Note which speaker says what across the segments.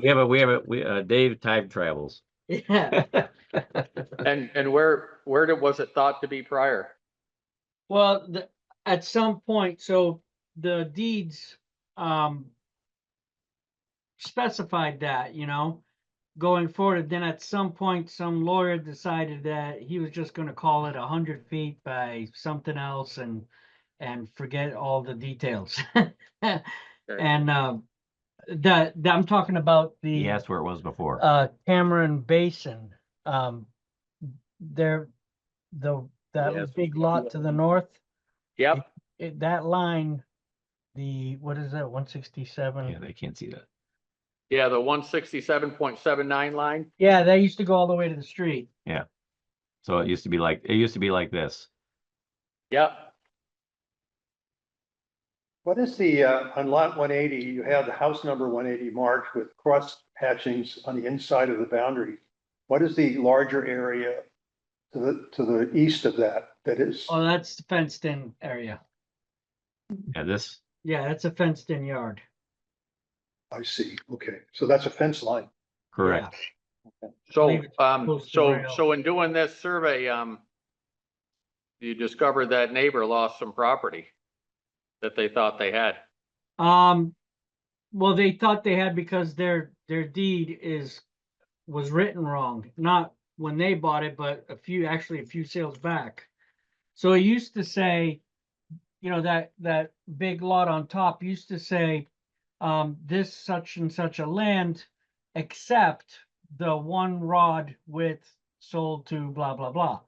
Speaker 1: We have a, we have a, we, uh, Dave time travels.
Speaker 2: Yeah,
Speaker 3: And, and where, where did, was it thought to be prior?
Speaker 2: well, the, at some point, so the deeds, um. Specified that, you know, going forward, and then at some point, some lawyer decided that he was just gonna call it a hundred feet by something else and. And forget all the details. And, uh, the, the- I'm talking about the.
Speaker 1: He asked where it was before.
Speaker 2: uh, Cameron Basin, um, there, the,
Speaker 3: Yes.
Speaker 2: that big lot to the north,
Speaker 3: Yep,
Speaker 2: it, that line, the, what is that, one
Speaker 1: Yeah,
Speaker 2: sixty-seven?
Speaker 1: they can't see that.
Speaker 3: yeah, the one sixty-seven point seven nine line.
Speaker 2: Yeah, that used to go all the way to the street.
Speaker 1: So it used to be like, it used to be like this.
Speaker 3: Yep,
Speaker 4: What is the, uh, on lot one eighty, you have the house number one eighty marked with cross hatchings on the inside of the boundary. What is the larger area to the, to the east of that, that is,
Speaker 2: Oh, that's the fenced-in area.
Speaker 1: Yeah, this,
Speaker 2: Yeah, that's a fenced-in yard.
Speaker 4: I see, okay, so that's a fence line.
Speaker 1: correct.
Speaker 3: so,
Speaker 2: Leave it
Speaker 3: um,
Speaker 2: close to
Speaker 3: so,
Speaker 2: where else.
Speaker 3: so in doing this survey, um, you discovered that neighbor lost some property that they thought they had.
Speaker 2: Um, well, they thought they had because their, their deed is, was written wrong, not when they bought it, but a few, actually a few sales back. So it used to say, you know, that, that big lot on top used to say, um, this such and such a land, except the one rod width sold to blah, blah, blah.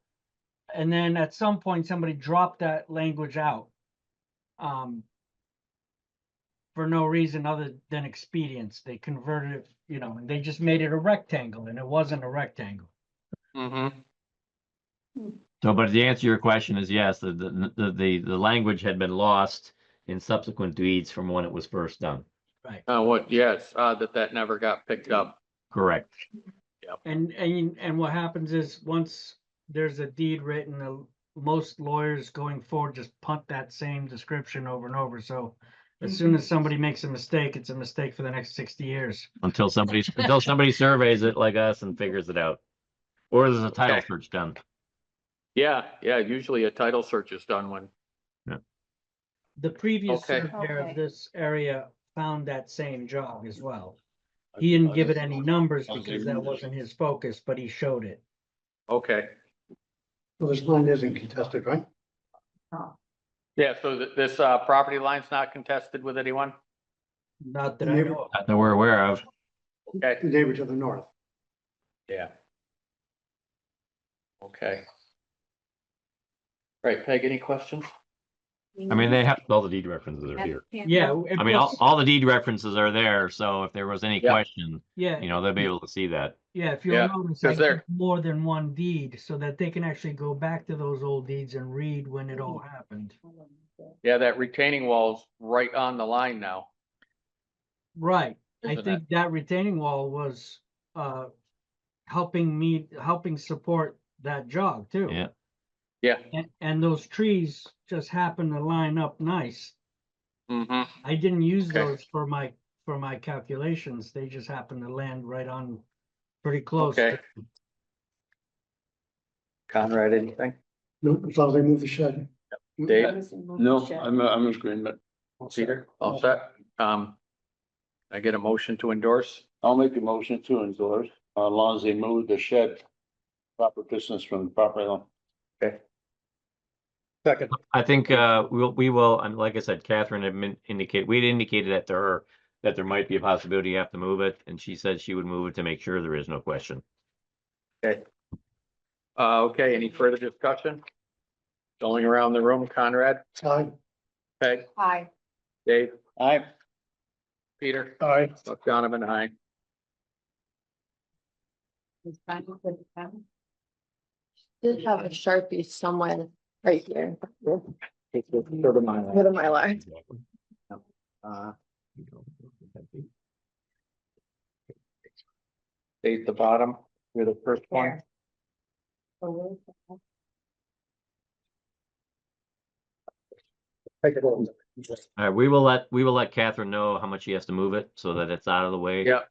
Speaker 2: And then at some point, somebody dropped that language out. Um, for no reason other than expedience. They converted it, you know, and they just made it a rectangle and it wasn't a rectangle.
Speaker 3: Mm-hmm,
Speaker 1: So, but the answer to your question is yes, the, the, the, the, the language had been lost in subsequent deeds from when it was first done.
Speaker 3: uh, what, yes, uh, that that never got picked up.
Speaker 1: Correct.
Speaker 2: And, and, and what happens is once there's a deed written, uh, most lawyers going forward just punt that same description over and over. So as soon as somebody makes a mistake, it's a mistake for the next sixty years.
Speaker 1: Until somebody, until somebody surveys it like us and figures it out. Or there's a title
Speaker 3: Okay.
Speaker 1: search done.
Speaker 3: Yeah, yeah, usually a title search is done when,
Speaker 2: The previous
Speaker 3: Okay.
Speaker 2: surveyor
Speaker 5: Okay.
Speaker 2: of this area found that same job as well. He didn't give it any numbers because that wasn't his focus, but he showed it.
Speaker 3: okay.
Speaker 4: Well, this line isn't contested, right?
Speaker 3: Yeah, so th- this, uh, property line's not contested with anyone?
Speaker 2: Not that I
Speaker 4: Neighbor-
Speaker 2: know of.
Speaker 1: Not That we're aware of.
Speaker 3: Okay,
Speaker 4: neighbor to the north.
Speaker 3: yeah. Okay. Right, Peg, any questions?
Speaker 1: I mean, they have, all the deed references are here.
Speaker 2: Yeah. it
Speaker 1: I mean,
Speaker 2: was-
Speaker 1: all, all the deed references are there, so if there was any
Speaker 3: Yeah.
Speaker 1: question, you
Speaker 2: Yeah,
Speaker 1: know, they'll be able to see that.
Speaker 2: yeah, if you'll
Speaker 3: Yeah,
Speaker 2: notice,
Speaker 3: 'cause
Speaker 2: I
Speaker 3: they're-
Speaker 2: did more than one deed, so that they can actually go back to those old deeds and read when it all happened.
Speaker 3: Yeah, that retaining wall's right on the line now.
Speaker 2: Right, I
Speaker 3: Isn't it?
Speaker 2: think that retaining wall was, uh, helping me, helping support that jog too.
Speaker 1: Yeah.
Speaker 3: Yeah.
Speaker 2: And, and those trees just happen to line up nice.
Speaker 3: Mm-hmm.
Speaker 2: I didn't use
Speaker 3: Okay.
Speaker 2: those for my, for my calculations, they just happened to land right on pretty close.
Speaker 3: Okay. Conrad, anything?
Speaker 4: No, as long as they move the shed.
Speaker 3: Dave?
Speaker 6: No, I'm, I'm in agreement.
Speaker 3: Peter? All set? Um, I get a motion to endorse?
Speaker 6: I'll make a motion to endorse, uh, as long as they move the shed proper distance from the property line.
Speaker 4: Second,
Speaker 1: I think, uh, we'll, we will, and like I said, Catherine had min- indicate, we'd indicated that to her that there might be a possibility you have to move it, and she said she would move it to make sure there is no question.
Speaker 3: Uh, okay, any further discussion? Going around the room, Conrad,
Speaker 4: aye.
Speaker 3: Peg,
Speaker 5: Hi,
Speaker 3: Dave,
Speaker 6: Aye.
Speaker 3: Peter,
Speaker 4: Aye.
Speaker 3: Donovan, I.
Speaker 5: did have a Sharpie somewhere right here.
Speaker 3: Uh,
Speaker 5: What am I like?
Speaker 3: Dave, the bottom, you're the first one.
Speaker 4: Take it over.
Speaker 1: All right, we will let, we will let Catherine know how much she has to move it, so that it's out of the way.
Speaker 3: Yep.